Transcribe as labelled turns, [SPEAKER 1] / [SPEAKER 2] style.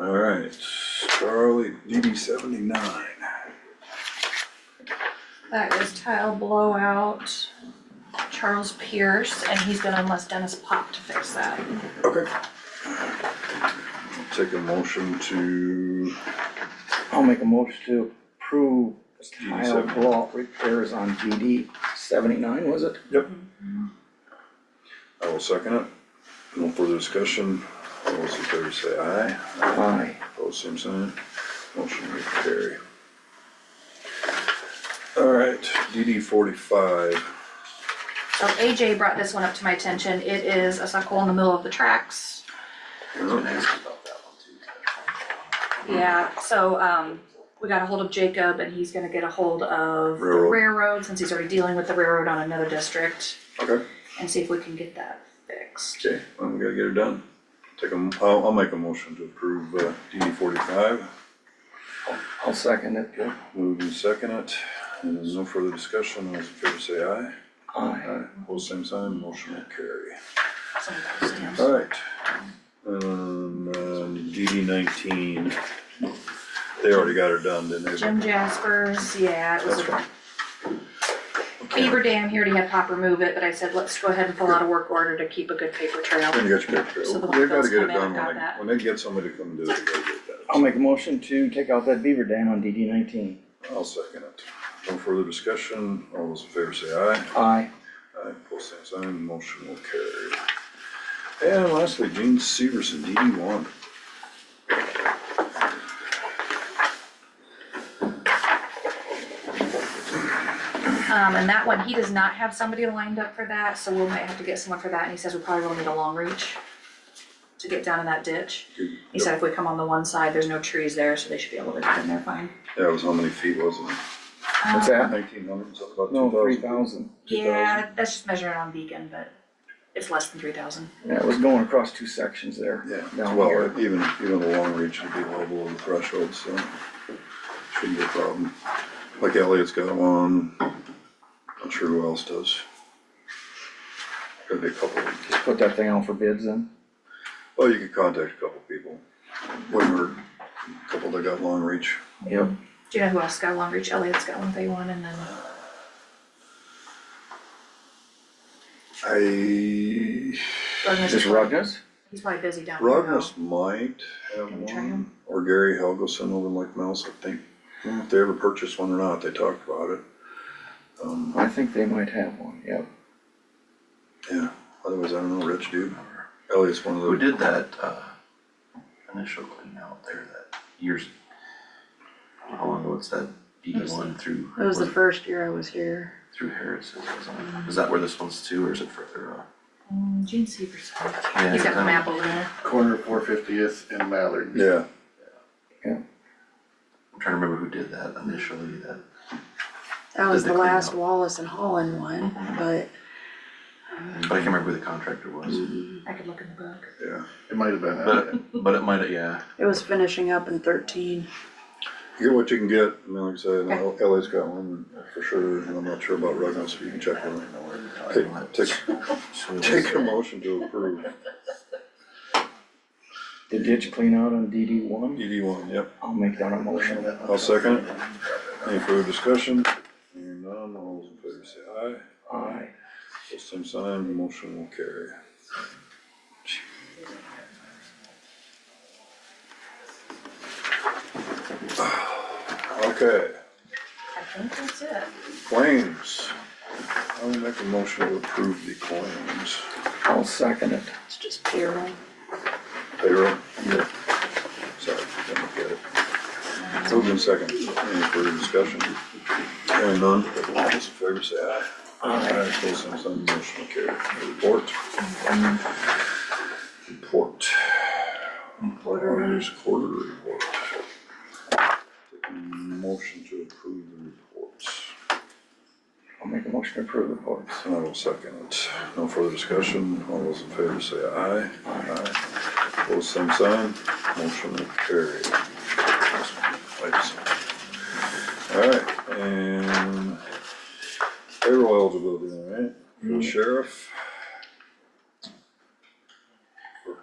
[SPEAKER 1] All right, Charlie, DD seventy-nine.
[SPEAKER 2] That is tile blowout, Charles Pierce, and he's been unless Dennis popped to fix that.
[SPEAKER 1] Okay. Take a motion to,
[SPEAKER 3] I'll make a motion to approve
[SPEAKER 1] DD
[SPEAKER 3] tile
[SPEAKER 1] 79.
[SPEAKER 3] block repairs on DD seventy-nine, was it?
[SPEAKER 1] I will second it. No further discussion. All those in favor say aye.
[SPEAKER 3] Aye.
[SPEAKER 1] Opposed, same sign. Motion will carry. All right, DD forty-five.
[SPEAKER 2] So AJ brought this one up to my attention, it is a suck hole in the middle of the tracks. Yeah, so, um, we got a hold of Jacob and he's gonna get a hold of the
[SPEAKER 1] Railroad.
[SPEAKER 2] railroad, since he's already dealing with the railroad on another district,
[SPEAKER 1] Okay.
[SPEAKER 2] and see if we can get that fixed.
[SPEAKER 1] Okay, I'm gonna get it done. Take a, m- I'll, I'll make a motion to approve, uh, DD forty-five.
[SPEAKER 3] I'll second it, Joe.
[SPEAKER 1] Move and second it. And there's no further discussion. All those in favor say aye.
[SPEAKER 3] Aye.
[SPEAKER 1] Aye. Opposed, same sign. Motion will carry.
[SPEAKER 2] Some of those stamps.
[SPEAKER 1] All right. Um, uh, DD nineteen. They already got it done, didn't they?
[SPEAKER 2] Jim Jaspers, yeah, it was
[SPEAKER 1] That's
[SPEAKER 2] a
[SPEAKER 1] right.
[SPEAKER 2] beaver dam, he already had pop remove it, but I said, let's go ahead and pull out a work order to keep a good paper trail.
[SPEAKER 1] Then you got your picture.
[SPEAKER 2] So the
[SPEAKER 1] They gotta
[SPEAKER 2] Lakeville's
[SPEAKER 1] get it
[SPEAKER 2] come
[SPEAKER 1] done
[SPEAKER 2] in and got
[SPEAKER 1] when they,
[SPEAKER 2] that. Um.
[SPEAKER 1] when they get somebody to come do it, they gotta get that.
[SPEAKER 3] I'll make a motion to take out that beaver dam on DD nineteen.
[SPEAKER 1] I'll second it. No further discussion. All those in favor say aye.
[SPEAKER 3] Aye.
[SPEAKER 1] Aye, pull same sign, motion will carry. And lastly, Gene Severson, DD one.
[SPEAKER 2] Um, and that one, he does not have somebody lined up for that, so we might have to get someone for that, and he says we probably will need a long reach to get down in that ditch. He said if we come on the one side, there's no trees there, so they should be able to get in there fine. Um,
[SPEAKER 1] That was how many feet was it?
[SPEAKER 3] What's that?
[SPEAKER 1] Nineteen hundred, something about
[SPEAKER 3] No, three
[SPEAKER 1] two thousand?
[SPEAKER 3] thousand.
[SPEAKER 2] Yeah, that's just measuring on Beacon, but it's less than three thousand.
[SPEAKER 3] Yeah, it was going across two sections there.
[SPEAKER 1] Yeah,
[SPEAKER 3] Down
[SPEAKER 1] well,
[SPEAKER 3] here.
[SPEAKER 1] even, even the long reach would be well below the threshold, so shouldn't be a problem. Like Elliot's got one, not sure who else does. Could be a couple,
[SPEAKER 3] Just put that thing out for bids then.
[SPEAKER 1] well, you could contact a couple people, one or a couple that got long reach.
[SPEAKER 3] Yep.
[SPEAKER 2] Do you know who else got a long reach? Elliot's got one, they won, and then
[SPEAKER 1] I
[SPEAKER 2] Ruggnus.
[SPEAKER 3] Just Rogers?
[SPEAKER 2] He's probably busy down there. now.
[SPEAKER 1] Rognus might have
[SPEAKER 2] Can we try
[SPEAKER 1] one,
[SPEAKER 2] him?
[SPEAKER 1] or Gary Helgeson over in Lake Mouse, I think. I don't know If they ever purchased one or not, they talked about it. Um,
[SPEAKER 3] I think they might have one, yep.
[SPEAKER 1] yeah, otherwise, I don't know, Rich dude, or Elliot's one of
[SPEAKER 4] Who
[SPEAKER 1] those.
[SPEAKER 4] did that, uh, initial clean out there that years? How long ago was that? D one through,
[SPEAKER 5] That was the
[SPEAKER 4] was it
[SPEAKER 5] first year I was here.
[SPEAKER 4] through Harris's, wasn't it? Is that where this one's to, or is it further on?
[SPEAKER 2] Mm, Gene Severson.
[SPEAKER 4] Yeah,
[SPEAKER 2] He's got the
[SPEAKER 4] um,
[SPEAKER 2] map over there.
[SPEAKER 6] corner of four fiftieth and Mallard.
[SPEAKER 1] Yeah,
[SPEAKER 4] I'm trying to remember who did that initially, that,
[SPEAKER 5] That was
[SPEAKER 4] Did
[SPEAKER 5] the
[SPEAKER 4] they clean
[SPEAKER 5] last
[SPEAKER 4] up?
[SPEAKER 5] Wallace and Holland one, but
[SPEAKER 4] but I can't remember who the contractor was.
[SPEAKER 2] I could look in the book.
[SPEAKER 1] yeah.
[SPEAKER 6] It might have been
[SPEAKER 4] But,
[SPEAKER 6] that.
[SPEAKER 4] it- but it might, yeah,
[SPEAKER 5] it was finishing up in thirteen.
[SPEAKER 1] You Get what you can get, I mean, like I said, El- Elliot's got one for sure, and I'm not sure about Rognus, but you can check one. Take, take,
[SPEAKER 4] so it
[SPEAKER 1] take a
[SPEAKER 4] was,
[SPEAKER 1] motion to approve
[SPEAKER 3] The ditch clean out on DD one?
[SPEAKER 1] DD E one, yep.
[SPEAKER 3] I'll make that a motion.
[SPEAKER 1] I'll second it. Any further discussion? Hearing none, all those in favor say aye.
[SPEAKER 3] Aye.
[SPEAKER 1] Post same sign, the motion will carry. Okay,
[SPEAKER 2] I think that's it.
[SPEAKER 1] claims. I will make a motion to approve the claims.
[SPEAKER 3] I'll second it.
[SPEAKER 5] It's just payroll.
[SPEAKER 1] Payroll? Yeah. Sorry, didn't get it. Moved in second. Any further discussion? Hearing none, all those in favor say aye. Aye. Post same sign, the motion will carry. Report. Report. Auditor's quarterly report. Take a Motion to approve the reports.
[SPEAKER 3] I'll make a motion to approve the reports.
[SPEAKER 1] And I will second it. No further discussion. All those in favor say aye. Aye. Opposed, same sign. Motion will carry. All right, and